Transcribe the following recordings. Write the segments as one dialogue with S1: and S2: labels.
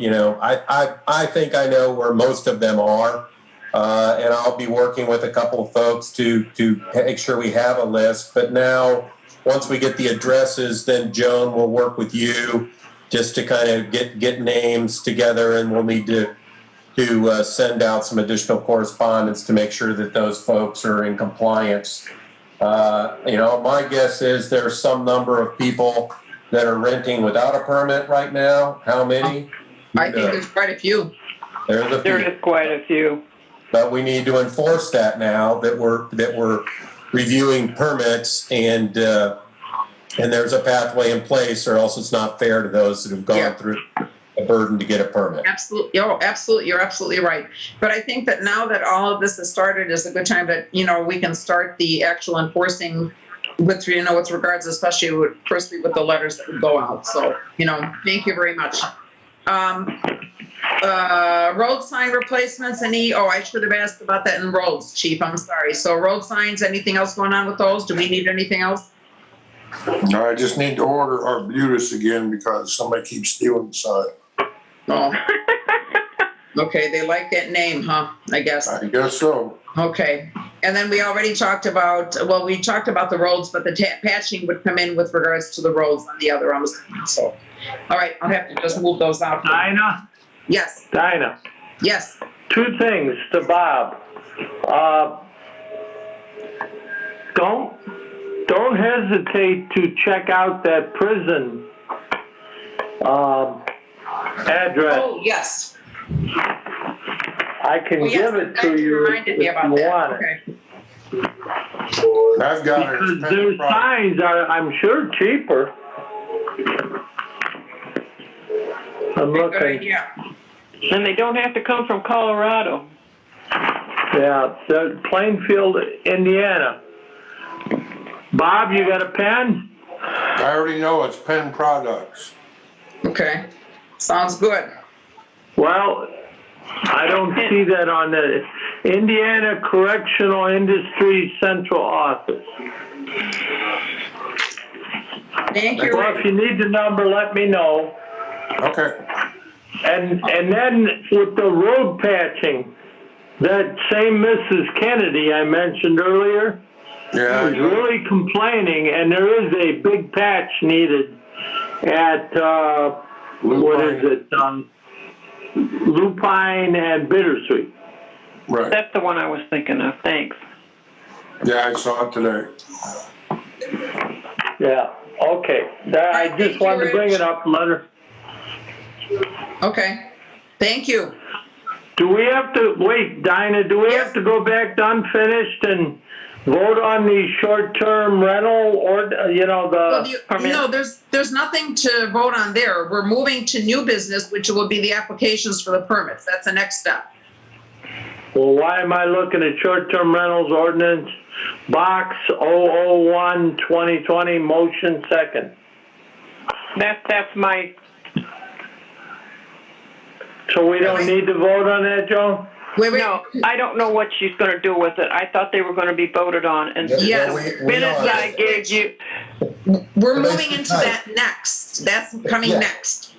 S1: you know, I, I, I think I know where most of them are. Uh, and I'll be working with a couple of folks to, to make sure we have a list. But now, once we get the addresses, then Joan will work with you just to kind of get, get names together and we'll need to, to uh, send out some additional correspondence to make sure that those folks are in compliance. Uh, you know, my guess is there's some number of people that are renting without a permit right now. How many?
S2: I think there's quite a few.
S1: There's a few.
S3: There is quite a few.
S1: But we need to enforce that now that we're, that we're reviewing permits and, uh, and there's a pathway in place or else it's not fair to those that have
S2: Yeah.
S1: gone through a burden to get a permit.
S2: Absolutely, oh, absolutely, you're absolutely right. But I think that now that all of this has started is a good time that, you know, we can start the actual enforcing with, you know, with regards especially with, firstly with the letters that would go out. So, you know, thank you very much. Um, uh, road sign replacements, any, oh, I should have asked about that in roads, chief, I'm sorry. So road signs, anything else going on with those? Do we need anything else?
S4: No, I just need to order Arbutus again because somebody keeps stealing the sign.
S2: Oh, okay, they like that name, huh? I guess.
S4: I guess so.
S2: Okay, and then we already talked about, well, we talked about the roads, but the ta- patching would come in with regards to the roads on the other, I'm assuming, so. All right, I'll have to just move those out.
S3: Dinah,
S2: Yes,
S3: Dinah,
S2: yes,
S3: two things to Bob. Uh, don't don't hesitate to check out that prison um, address.
S2: oh, yes.
S3: I can
S2: Oh, yes,
S3: give it to
S2: you
S3: you
S2: reminded me
S3: if
S2: about
S3: you
S2: that.
S3: want it.
S2: Okay.
S4: I've got it.
S3: Because their signs are, I'm sure, cheaper. I'm
S2: Good
S3: looking.
S2: idea.
S5: And they don't have to come from Colorado.
S3: Yeah, the Plainfield, Indiana. Bob, you got a pen?
S4: I already know it's Penn Products.
S2: Okay, sounds good.
S3: Well, I don't see that on the Indiana Correctional Industries Central Office.
S2: Thank you.
S3: Well, if you need the number, let me know.
S4: Okay.
S3: And, and then with the road patching, that same Mrs. Kennedy I mentioned earlier
S4: Yeah. I
S3: is
S4: know.
S3: Uh, really complaining, and there is a big patch needed at, uh,
S4: Blue
S3: what
S4: Pine.
S3: is it, um, Lupine and Bittersweet.
S4: Right.
S5: That's the one I was thinking of. Thanks.
S4: Yeah, I saw it today.
S3: Yeah, okay. That- I just wanted to bring it up, let her,
S2: Okay, thank you.
S3: do we have to, wait, Dinah, do we have to go back to unfinished and vote on the short-term rental or, you know,
S2: Well,
S3: the,
S2: you-
S5: permit.
S2: No, there's, there's nothing to vote on there. We're moving to new business, which will be the applications for the permits. That's the next step.
S3: well, why am I looking at short-term rentals ordinance? Box 001, 2020, motion second.
S5: That, that's my,
S3: So we don't need to vote on that, Joan?
S2: Wait, wait,
S5: no, I don't know what she's gonna do with it. I thought they were gonna be voted on and as
S2: Yes.
S1: We- we
S5: soon as
S1: are-
S5: I gave you,
S2: We're
S1: But that's
S2: moving
S1: the
S2: into
S1: type.
S2: that next. That's coming
S1: Yeah.
S2: next.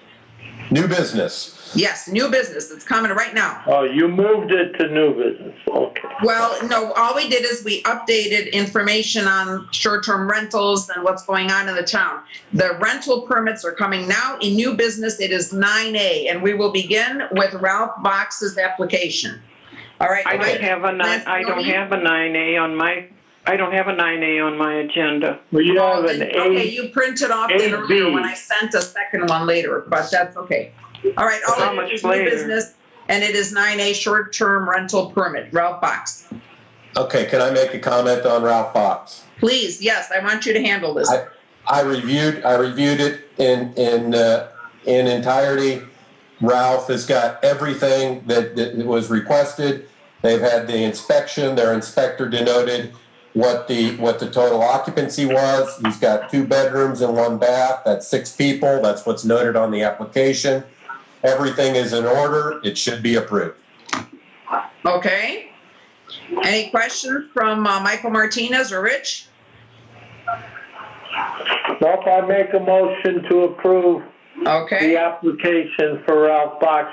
S1: New business.
S2: Yes, new business. It's coming right now.
S3: Oh, you moved it to new business, okay.
S2: Well, no, all we did is we updated information on short-term rentals and what's going on in the town. The rental permits are coming now. In new business, it is 9A, and we will begin with Ralph Box's application. All right.
S5: I
S2: Mike?
S5: don't have a nine,
S2: Last
S5: I don't
S2: voting?
S5: have a nine A on my, I don't have a nine A on my agenda.
S3: We have an eight.
S2: Okay, you printed off it
S3: eight
S2: earlier
S3: B.
S2: when I sent a second one later, but that's okay. All right,
S5: How
S2: all
S5: much
S2: it is
S5: later?
S2: new business, and it is nine A short-term rental permit, Ralph Box.
S1: Okay, can I make a comment on Ralph Fox?
S2: Please, yes, I want you to handle this.
S1: I- I reviewed, I reviewed it in, in, uh, in entirety. Ralph has got everything that, that was requested. They've had the inspection, their inspector denoted what the, what the total occupancy was. He's got two bedrooms and one bath, that's six people, that's what's noted on the application. Everything is in order, it should be approved.
S2: Okay? Any questions from uh, Michael Martinez or Rich?
S3: Nope, I make a motion to approve
S2: Okay.
S3: the application for Ralph Box